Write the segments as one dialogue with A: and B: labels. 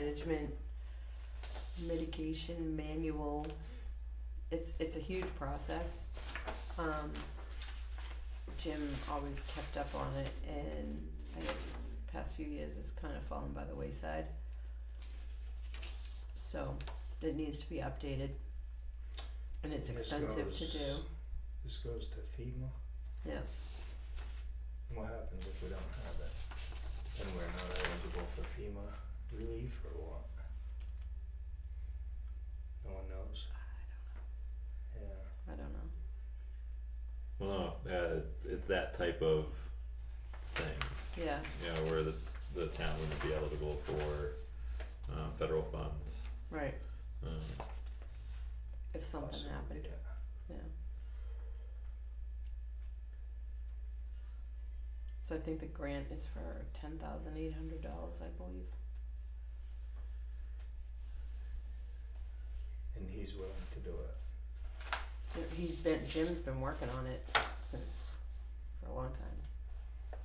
A: management mitigation manual. It's it's a huge process. Um, Jim always kept up on it, and I guess it's past few years it's kind of fallen by the wayside. So it needs to be updated, and it's
B: This
A: expensive to do.
B: goes- This goes to FEMA?
A: Yeah.
B: And What happens if we don't have it? Then we're not eligible for FEMA relief or what? No one knows? Yeah,
A: I don't know.
C: Well, no, uh, it's, it's that type of thing,
A: Yeah,
C: you know, where the, the town wouldn't be eligible for, uh, federal funds,
A: right.
C: um,
A: If something
B: possibly,
A: happened,
B: yeah.
A: yeah. So I think the grant is for ten thousand eight hundred dollars, I believe.
B: And he's willing to do it.
A: Yeah, He's been Jim's been working on it since for a long time.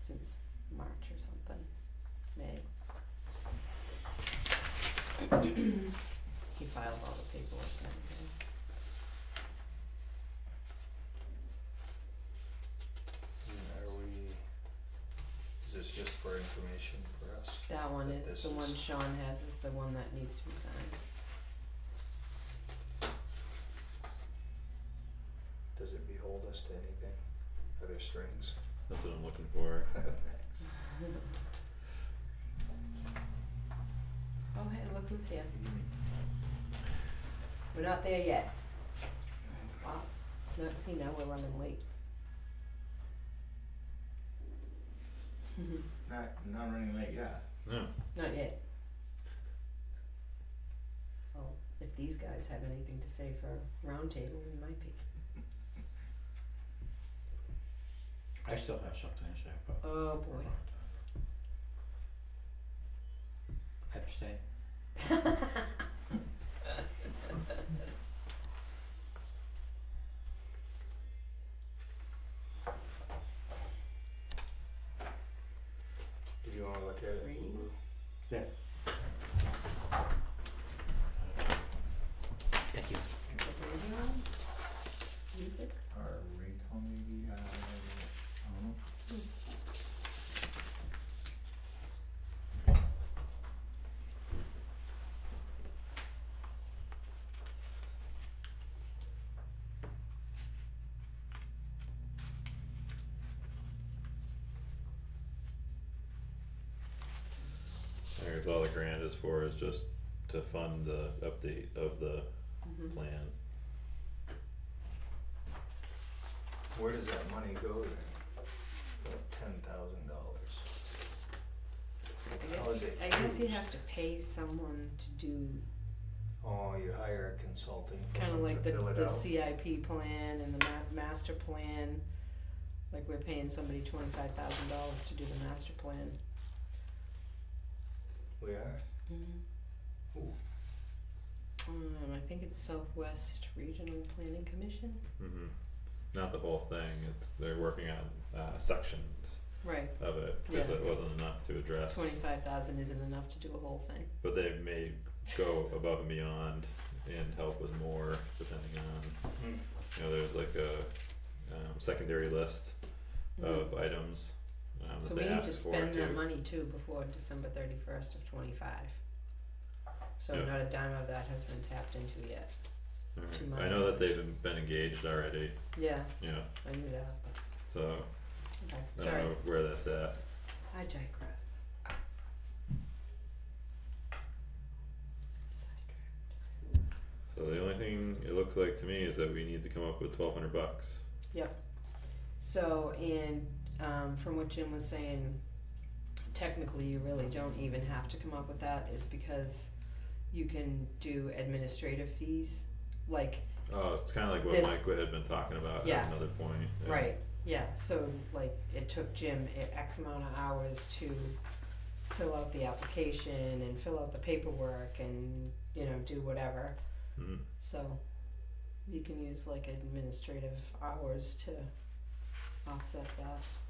A: Since March or something. May. he filed all the paperwork and everything.
B: And Are we, is this just for information for us?
A: That one
B: But
A: is,
B: this
A: the one
B: is-
A: Sean has is the one that needs to be signed.
B: Does it behold us to anything? Are there strings?
C: that's what I'm looking for.
B: Thanks.
A: Oh, hey, look who's here. We're not there yet. Wow, no, see, now we're running late.
D: Not not running late yet.
C: No,
A: Not yet. Well, if these guys have anything to say for roundtable, we might be.
D: I still have something to say, but
A: Oh, boy.
D: abstain.
B: Did you wanna look at it?
A: Reading?
B: Lulu?
D: Thank you.
A: Radio? Music?
D: Or recall maybe, uh, I don't know.
C: I guess all the grant is for is just to fund the update of the
A: Mm-hmm.
C: plan.
B: Where does that money go then? Ten thousand dollars.
A: I
B: How
A: guess
B: is
A: you,
B: it
A: I guess you
B: used?
A: have to pay someone to do
B: Oh, you hire a consulting
A: kind of
B: firm
A: like
B: to
A: the,
B: fill it
A: the
B: out.
A: CIP plan and the ma- master plan. Like we're paying somebody twenty-five thousand dollars to do the master plan.
B: We are?
A: Mm-hmm.
B: Ooh.
A: Um, I think it's Southwest Regional Planning Commission.
C: hmm Not the whole thing, it's, they're working on, uh, sections
A: Right,
C: of it, cause
A: Yeah.
C: it wasn't enough to address.
A: twenty-five thousand isn't enough to do a whole thing.
C: But they may go above and beyond and help with more depending on,
B: Hmm.
C: you know, there's like a um secondary list
A: Mm-hmm.
C: of items um
A: So
C: that
A: we
C: they
A: need
C: ask
A: to
C: for
A: spend that
C: too.
A: money too before December thirty-first of twenty-five. So
C: Yeah.
A: not a dime of that has been tapped into yet.
C: Alright.
A: to
C: I
A: my-
C: know that they've been- been engaged already,
A: Yeah,
C: you know,
A: I knew that,
C: so
A: okay,
C: I
A: sorry,
C: don't know where that's at.
A: I digress. Sidetracked.
C: So the only thing it looks like to me is that we need to come up with twelve hundred bucks.
A: So, and um, from what Jim was saying, technically you really don't even have to come up with that. It's because you can do administrative fees. Like,
C: Oh, it's kinda like what
A: This-
C: Mike had been talking about
A: Yeah.
C: at another point. yeah.
A: right, yeah. So, like, it took Jim i- X amount of hours to fill out the application and fill out the paperwork and, you know, do whatever.
C: Mhm.
A: So, you can use like administrative hours to offset that.